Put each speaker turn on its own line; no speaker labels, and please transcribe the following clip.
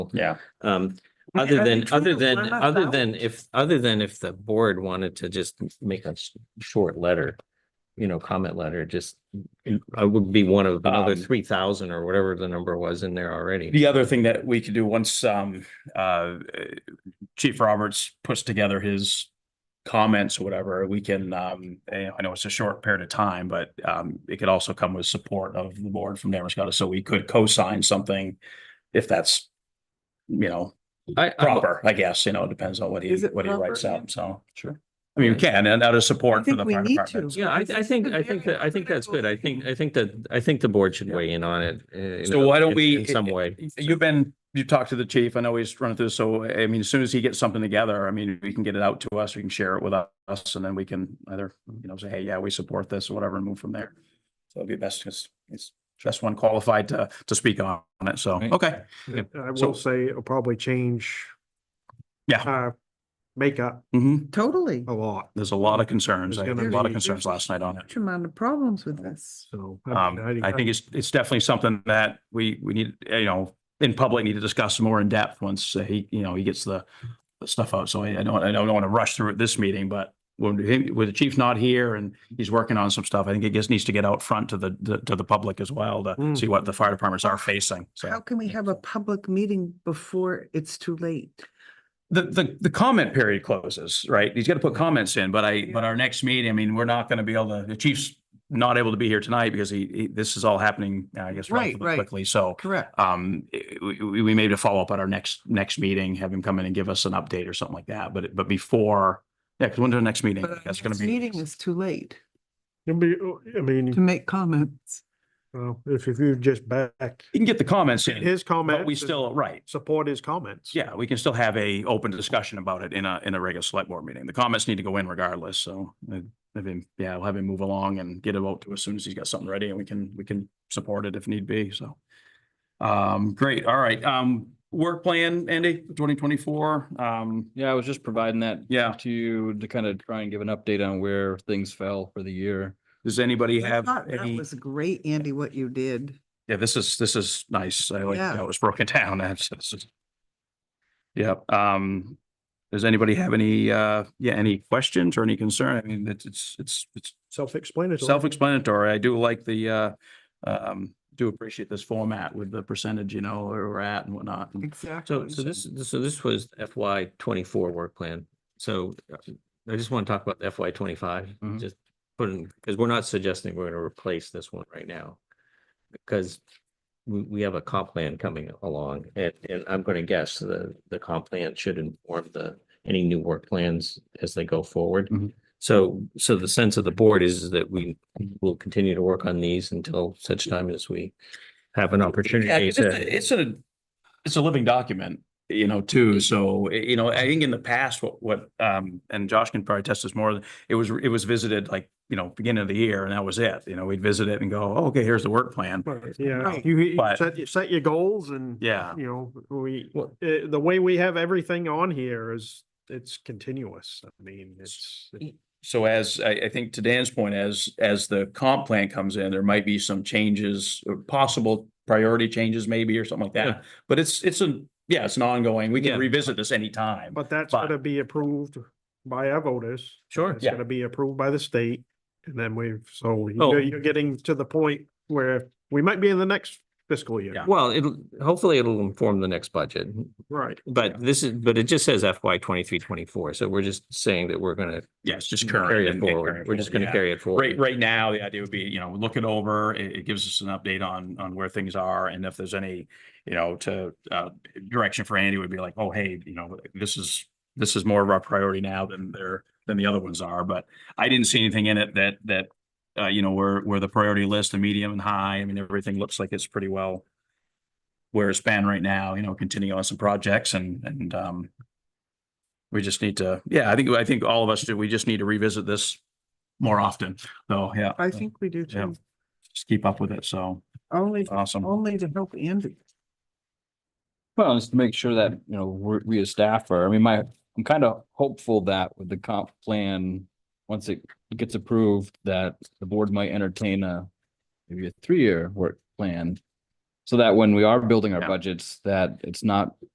Yeah.
Um,
I mean,
other
are they
than, other
trying to
than,
run us
other
out?
than if, other than if the board wanted to just make a sh- short letter, you know, comment letter, just, I would be one of another
Um,
three thousand or whatever the number was in there already.
The other thing that we could do once um uh Chief Roberts puts together his comments, or whatever, we can um, eh, I know it's a short period of time, but um it could also come with support of the board from Damerscott, so we could co-sign something if that's you know,
I, I,
proper, I guess, you know, it depends on what he
Is it
what he
proper,
writes
Ian?
out, so. Sure. I mean, we can, and out of support for
think
the
we
fire
need
department.
to.
yeah, I, I think, I
It's a
think,
very
that I think that's good. I
critical
think, I think that, I think the board should
Yeah.
weigh in on it. uh, you
So
know,
why don't
in-
we-
In some way.
You've been, you talked to the chief, I know he's running through, so I mean, as soon as he gets something together, I mean, we can get it out to us, we can share it with us, and then we can either, you know, say, hey, yeah, we support this or whatever, and move from there. So it'd be best, because it's best one qualified to, to speak on it, so,
Right.
okay,
Yep.
And I
So-
will say it'll probably change.
Yeah.
our Makeup
mhm.
Totally.
a lot,
There's a lot of concerns, I
There's
had
gonna
a lot of
be-
concerns last night on it.
Huge amount of problems
Oh,
with this.
so.
Um,
mean,
I think it's, it's definitely something that we, we need, you know, in public, need to discuss more in depth once uh, he, you know, he gets the the stuff out. So I I don't, I don't want to rush through it this meeting, but when, he- with the chief not here and he's working on some stuff, I think it just needs to get out front to the, the- to the public as well to
Mm.
see what the fire departments are facing.
How
So
can we have a public meeting before it's too late?
the, the, the comment period closes, right? He's got to put comments in, but I, but our next meeting, I mean, we're not going to be able to, the chief's not able to be here tonight because he, he- this is all happening, I guess,
Right,
relatively
right.
quickly. So
Correct.
um, i- we, we may have to follow up at our next, next meeting, have him come in and give us an update or something like that, but, but before, yeah, because when's our next meeting?
But
That's
this
gonna
Uh, meeting
be, Mm-hmm.
is too late
It'll be, I
to
mean,
make comments.
well, if if you just back
you can get the comments in,
his comments.
but we
and
still, right,
Support his comments.
yeah, we can still have a open discussion about it in a, in a regular select board meeting. The comments need to go in regardless, so uh, have him, yeah, we'll have him move along and get a vote to as soon as he's got something ready and we can, we can support it if need be, so. Um, great, all right, um, work plan, Andy, twenty twenty-four, um,
Yeah, I was just providing that
yeah,
to you to kind of try and give an update on where things fell for the year.
does anybody
I
have
thought That
any?
was great, Andy, what you did.
Yeah, this is, this is nice. I like
Yeah.
how it was broken down. That's, this is. Yeah, um, does anybody have any, uh, yeah, any questions or any concern? I mean, it's, it's, it's, it's
Self-explanatory.
self-explanatory. I do like the, uh, um, do appreciate this format with the percentage, you know, where we're at and whatnot. And
So,
Exactly.
so this, so this was FY twenty-four work plan. So uh, I just want to talk about FY twenty-five,
Mhm.
just put in, because we're not suggesting we're going to replace this one right now. Because we, we have a comp plan coming along and, and I'm going to guess the, the comp plan should inform the, any new work plans as they go forward.
Mhm.
So, so the sense of the board is that we will continue to work on these until such time as we have an
Yeah,
opportunity
'cause it's
to.
a- It's a, it's a living document, you know, too. So, eh, you know, I think in the past, what, what, um, and Josh can probably test this more, it was, it was visited like, you know, beginning of the year and that was it. You know, we'd visit it and go, oh, okay, here's the work plan.
Right, Yeah,
Right.
you, you
But-
set, you set your goals and.
Yeah.
You know, we,
Well-
eh, the way we have everything on here is, it's continuous. I mean, it's.
So as, I, I think to Dan's point, as, as the comp plan comes in, there might be some changes, or possible priority changes maybe or something like
Yeah.
that. But it's, it's a, yeah, it's an ongoing, we
Yeah.
can revisit this anytime.
But that's
But-
gonna be approved by our voters.
Sure.
It's
Yeah.
gonna be approved by the state. And then we've, so
Oh.
you're, you're getting to the point where we might be in the next fiscal year.
Yeah.
Well, it'll, hopefully it'll inform the next budget,
Right.
but this is, but it just says FY twenty-three, twenty-four, so we're just saying that we're gonna
Yes, just current.
carry it
Mm-hmm. and- and
forward.
current
We're just
forward,
gonna
yeah.
carry it forward.
Right, right now, the idea would be, you know, look it over. It, it gives us an update on, on where things are and if there's any, you know, to, uh, direction for Andy would be like, oh, hey, you know, this is, this is more of our priority now than there, than the other ones are. But I didn't see anything in it that, that, uh, you know, where, where the priority list, the medium and high, I mean, everything looks like it's pretty well where it's been right now, you know, continue on some projects and, and, um, we just need to, yeah, I think, I think all of us do. We just need to revisit this more often, though, yeah.
I think we do
Yeah. Mm.
too.
Just keep up with it, so
Only,
awesome.
only to help Andy.
Well, just to make sure that, you know, we're, we as staff are, I mean, my, I'm kind of hopeful that with the comp plan, once it gets approved, that the board might entertain a, maybe a three-year work plan. So that when we are building our
Yeah.
budgets, that it's not